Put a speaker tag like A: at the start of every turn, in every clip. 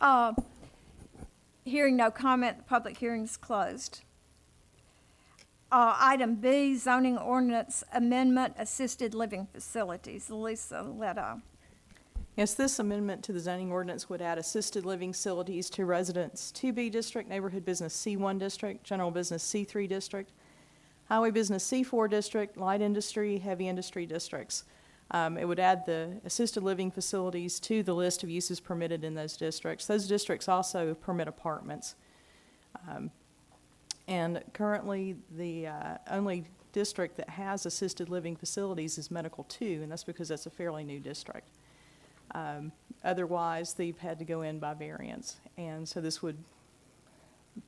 A: Uh, Hearing no comment, the public hearing's closed. Uh, Item B, zoning ordinance amendment, assisted living facilities. Lisa uh, Letta.
B: Yes, this amendment to the zoning ordinance would add assisted living facilities to residents 2B district, neighborhood business C1 district, general business C3 district, highway business C4 district, light industry, heavy industry districts. Um, It would add the assisted living facilities to the list of uses permitted in those districts. Those districts also permit apartments. Um, And currently, the uh, only district that has assisted living facilities is Medical Two, and that's because that's a fairly new district. Um, Otherwise, they've had to go in by variance, and so this would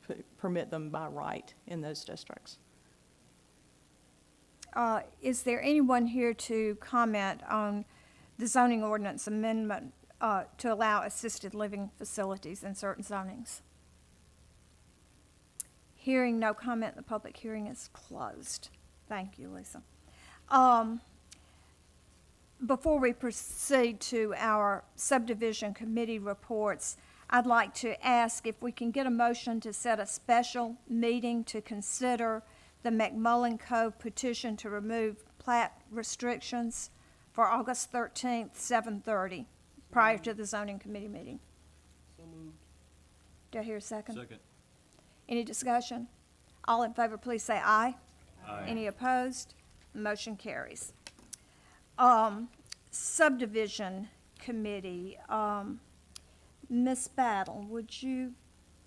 B: p- permit them by right in those districts.
A: Uh, Is there anyone here to comment on the zoning ordinance amendment uh, to allow assisted living facilities in certain zonings? Hearing no comment, the public hearing is closed. Thank you, Lisa. Um, Before we proceed to our subdivision committee reports, I'd like to ask if we can get a motion to set a special meeting to consider the McMullen Cove petition to remove plat restrictions for August 13th, 7:30, prior to the zoning committee meeting. Do I hear a
C: Second.
A: any discussion? All in favor, please say aye. Any opposed? Motion carries. Um, subdivision committee, um, Ms. Battle, would you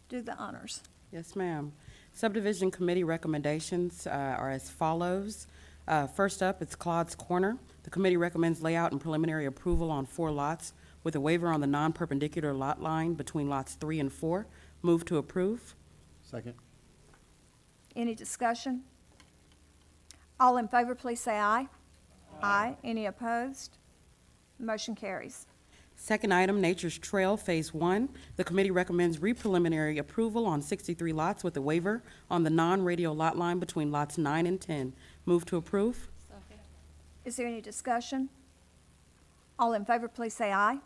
A: do the honors?
D: Yes, ma'am. Subdivision Committee recommendations uh, are as follows. Uh, First up, it's Claude's Corner. The committee recommends layout and preliminary approval on four lots with a waiver on the non-perpendicular lot line between lots three and four. Move to approve.
C: Second.
A: Any discussion? All in favor, please say aye. Aye. Any opposed? Motion carries.
D: Second item, Nature's Trail Phase One. The committee recommends re-preliminary approval on 63 lots with a waiver on the non-radial lot line between lots nine and 10. Move to approve.
A: Is there any discussion? All in favor, please say aye.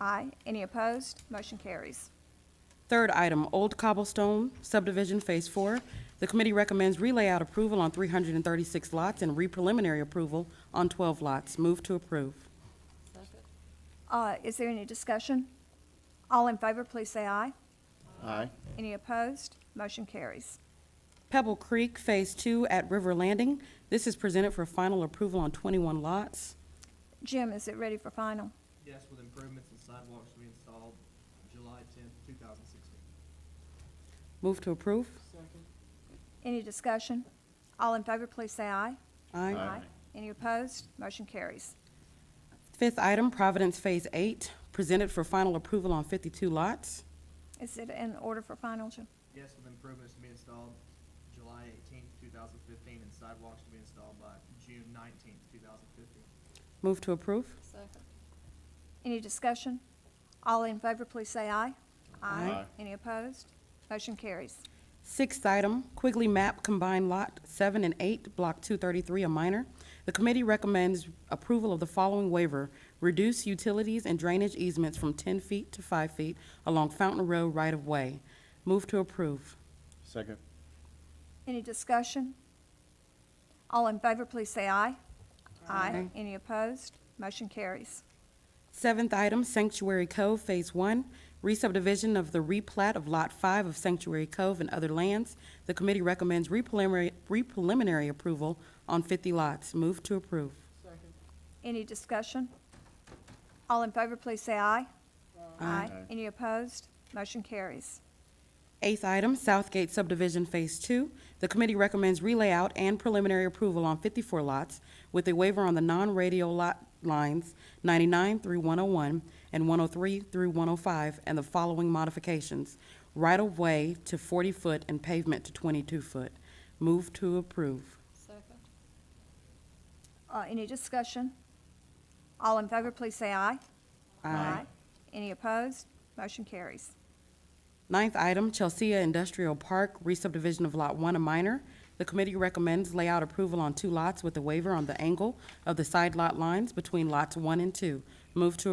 A: Aye. Any opposed? Motion carries.
D: Third item, Old Cobblestone subdivision, Phase Four. The committee recommends relayout approval on 336 lots and re-preliminary approval on 12 lots. Move to approve.
A: Uh, is there any discussion? All in favor, please say aye.
C: Aye.
A: Any opposed? Motion carries.
D: Pebble Creek, Phase Two at River Landing. This is presented for final approval on 21 lots.
A: Jim, is it ready for final?
E: Yes, with improvements and sidewalks to be installed July tenth, two thousand sixteen.
D: Move to approve.
A: Any discussion? All in favor, please say aye.
D: Aye.
C: Aye.
A: Any opposed? Motion carries.
D: Fifth item, Providence Phase Eight, presented for final approval on 52 lots.
A: Is it in order for final, Jim?
E: Yes, with improvements to be installed July eighteenth, two thousand fifteen, and sidewalks to be installed by June nineteenth, two thousand fifteen.
D: Move to approve.
A: Any discussion? All in favor, please say aye.
D: Aye.
A: Any opposed? Motion carries.
D: Sixth item, Quigley Map Combined Lot 7 and 8, Block 233, a minor. The committee recommends approval of the following waiver: reduce utilities and drainage easements from 10 feet to 5 feet along Fountain Row right-of-way. Move to approve.
C: Second.
A: Any discussion? All in favor, please say aye. Aye.
D: Aye.
A: Any opposed? Motion carries.
D: Seventh item, Sanctuary Cove Phase 1, re-subdivision of the replat of Lot 5 of Sanctuary Cove and other lands. The committee recommends re-preliminary re-preliminary approval on 50 lots. Move to approve.
A: Any discussion? All in favor, please say aye. Any opposed? Motion carries.
D: Eighth item, Southgate Subdivision Phase Two. The committee recommends relayout and preliminary approval on 54 lots with a waiver on the non-radio lot lines 99 through 101 and 103 through 105 and the following modifications. Right-of-way to 40-foot and pavement to 22-foot. Move to approve.
A: Uh, Any discussion? All in favor, please say aye. Any opposed? Motion carries.
D: Ninth item, Chelsea Industrial Park, re-subdivision of Lot 1, a minor. The committee recommends layout approval on two lots with a waiver on the angle of the side lot lines between lots 1 and 2. Move to